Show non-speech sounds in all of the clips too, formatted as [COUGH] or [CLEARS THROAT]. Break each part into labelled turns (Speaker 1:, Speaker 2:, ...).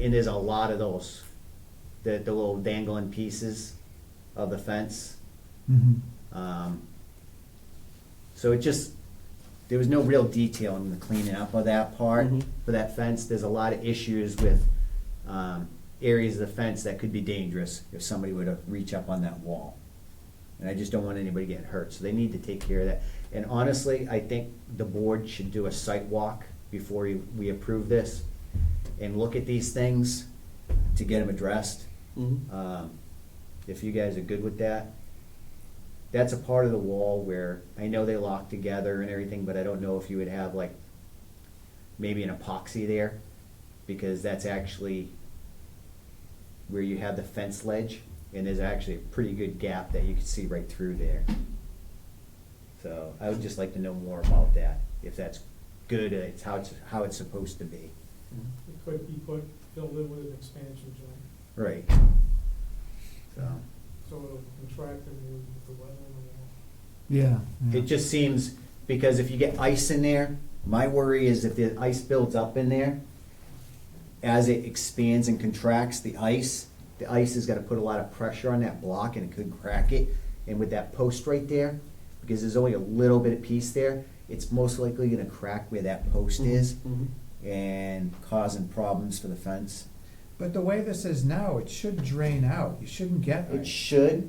Speaker 1: And there's a lot of those, the, the little dangling pieces of the fence.
Speaker 2: Mhm.
Speaker 1: Um, So it just, there was no real detail in the cleaning up of that part,
Speaker 3: Mhm.
Speaker 1: for that fence. There's a lot of issues with um, areas of the fence that could be dangerous if somebody were to reach up on that wall. And I just don't want anybody getting hurt, so they need to take care of that. And honestly, I think the board should do a site walk before you- we approve this and look at these things to get them addressed.
Speaker 3: Mhm.
Speaker 1: Um, If you guys are good with that, that's a part of the wall where I know they lock together and everything, but I don't know if you would have like maybe an epoxy there because that's actually where you have the fence ledge and there's actually a pretty good gap that you can see right through there. So I would just like to know more about that, if that's good, and it's how it's, how it's supposed to be.
Speaker 4: It could be put, filled in with an expansion joint,
Speaker 1: Right. So.
Speaker 4: so it'll contract and move with the weather and all.
Speaker 2: Yeah. yeah.
Speaker 1: It just seems, because if you get ice in there, my worry is if the ice builds up in there, as it expands and contracts, the ice, the ice is gonna put a lot of pressure on that block and it could crack it. And with that post right there, because there's only a little bit of piece there, it's most likely gonna crack where that post is
Speaker 3: Mhm.
Speaker 1: Mm-hmm. and causing problems for the fence.
Speaker 2: But the way this is now, it should drain out. You shouldn't get
Speaker 1: It
Speaker 2: ice.
Speaker 1: should,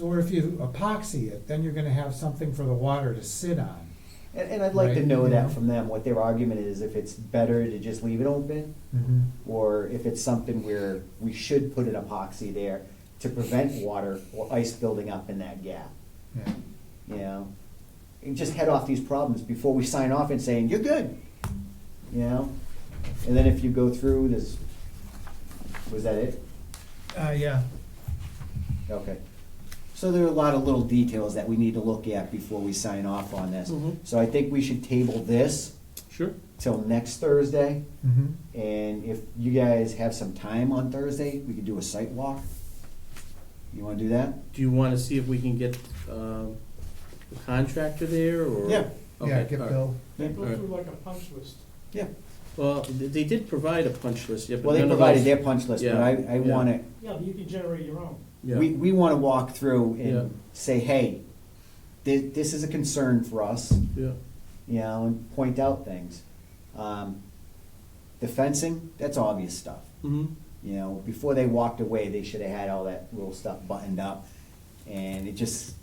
Speaker 2: Or if you epoxy it, then you're gonna have something for the water to sit on.
Speaker 1: and, and I'd like to
Speaker 2: Right,
Speaker 1: know
Speaker 2: yeah.
Speaker 1: that from them, what their argument is, if it's better to just leave it open
Speaker 2: Mm-hmm.
Speaker 1: or if it's something where we should put an epoxy there to prevent water or ice building up in that gap,
Speaker 2: Yeah.
Speaker 1: you know? And just head off these problems before we sign off and saying, you're good, you know? And then if you go through this, was that it?
Speaker 2: Uh, yeah.
Speaker 1: Okay. So there are a lot of little details that we need to look at before we sign off on this.
Speaker 3: Mhm.
Speaker 1: So I think we should table this
Speaker 3: Sure.
Speaker 1: till next Thursday.
Speaker 2: Mhm.
Speaker 1: And if you guys have some time on Thursday, we could do a site walk. You wanna do that?
Speaker 3: Do you want to see if we can get um, the contractor there or?
Speaker 1: Yeah.
Speaker 2: Yeah,
Speaker 3: Okay,
Speaker 2: get
Speaker 3: all right.
Speaker 2: Bill.
Speaker 4: They
Speaker 3: All
Speaker 4: go
Speaker 3: right.
Speaker 4: through like a punch list.
Speaker 1: Yeah.
Speaker 3: Well, th- they did provide a punch list, yeah, but
Speaker 1: Well, they
Speaker 3: none of
Speaker 1: provided
Speaker 3: those-
Speaker 1: their punch list, but I,
Speaker 3: Yeah,
Speaker 1: I
Speaker 3: yeah.
Speaker 1: wanna,
Speaker 4: Yeah, but you can generate your own.
Speaker 3: Yeah.
Speaker 1: we, we wanna walk through
Speaker 3: Yeah.
Speaker 1: and say, hey, thi- this is a concern for us,
Speaker 3: Yeah,
Speaker 1: you know, and point out things. Um, The fencing, that's obvious stuff.
Speaker 3: mhm,
Speaker 1: You know, before they walked away, they should have had all that little stuff buttoned up. And it just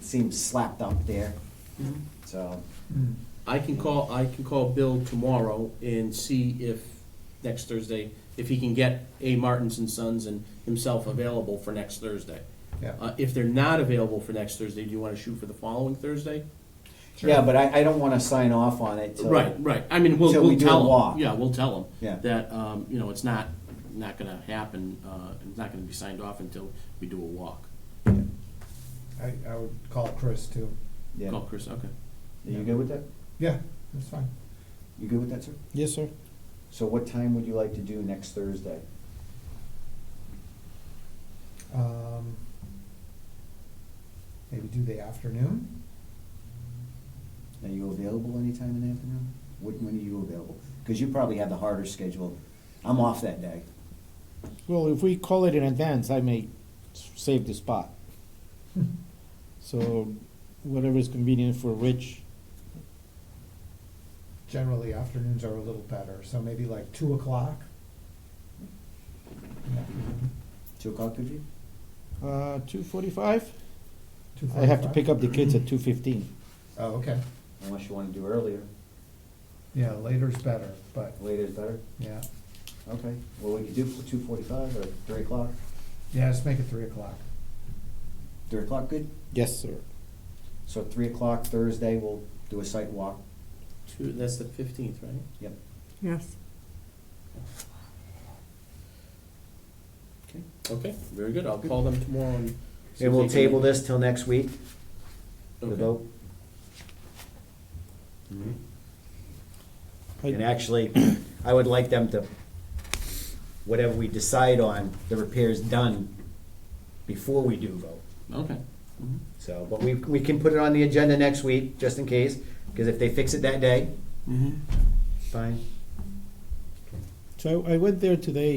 Speaker 1: seems slapped up there,
Speaker 3: mhm.
Speaker 1: so,
Speaker 2: Mm.
Speaker 3: I can call, I can call Bill tomorrow and see if, next Thursday, if he can get A. Martins and Sons and himself available for next Thursday.
Speaker 2: Yeah.
Speaker 3: Uh, If they're not available for next Thursday, do you want to shoot for the following Thursday?
Speaker 2: Sure.
Speaker 1: yeah, but I, I don't wanna sign off on it till.
Speaker 3: Right, right, I mean, we'll,
Speaker 1: Till we
Speaker 3: we'll
Speaker 1: do a
Speaker 3: tell
Speaker 1: walk.
Speaker 3: them, yeah, we'll tell
Speaker 1: Yeah.
Speaker 3: them that, um, you know, it's not, not gonna happen, uh, it's not gonna be signed off until we do a walk.
Speaker 2: I, I would call Chris too.
Speaker 1: Yeah,
Speaker 3: Call
Speaker 1: are
Speaker 3: Chris, okay.
Speaker 1: you good with that?
Speaker 2: Yeah, that's fine.
Speaker 1: You good with that, sir?
Speaker 5: Yes, sir.
Speaker 1: So what time would you like to do next Thursday?
Speaker 2: Um, maybe do the afternoon?
Speaker 1: Are you available anytime in the afternoon? When, when are you available? Because you probably have the harder schedule. I'm off that day.
Speaker 5: Well, if we call it in advance, I may s- save the spot. So whatever is convenient for Rich,
Speaker 2: Generally, afternoons are a little better, so maybe like two o'clock? Mm-hmm.
Speaker 1: Two o'clock, could you?
Speaker 5: uh, two forty-five? I have to pick up the kids at two fifteen.
Speaker 2: Oh, okay.
Speaker 1: Unless you want to do earlier.
Speaker 2: Yeah, later's better, but,
Speaker 1: Later is better.
Speaker 2: yeah.
Speaker 1: Okay. Well, we could do two forty-five or three o'clock.
Speaker 2: Yeah, let's make it three o'clock.
Speaker 1: Three o'clock, good?
Speaker 5: Yes, sir.
Speaker 1: So three o'clock Thursday, we'll do a site walk.
Speaker 3: Two, that's the fifteenth, right?
Speaker 1: Yep.
Speaker 6: Yes.
Speaker 3: Okay, very good, I'll call them tomorrow and. see
Speaker 1: And
Speaker 3: if
Speaker 1: we'll
Speaker 3: they can-
Speaker 1: table this till next week, the
Speaker 3: Okay.
Speaker 1: vote.
Speaker 5: I-
Speaker 1: And actually, [CLEARS THROAT] I would like them to, whatever we decide on, the repair's done before we do vote.
Speaker 3: Okay.
Speaker 1: Mm-hmm.
Speaker 3: Mhm.
Speaker 1: So, but we, we can put it on the agenda next week, just in
Speaker 3: Mm-hmm.
Speaker 1: case, because if they fix it that day, fine.
Speaker 5: So I I went there today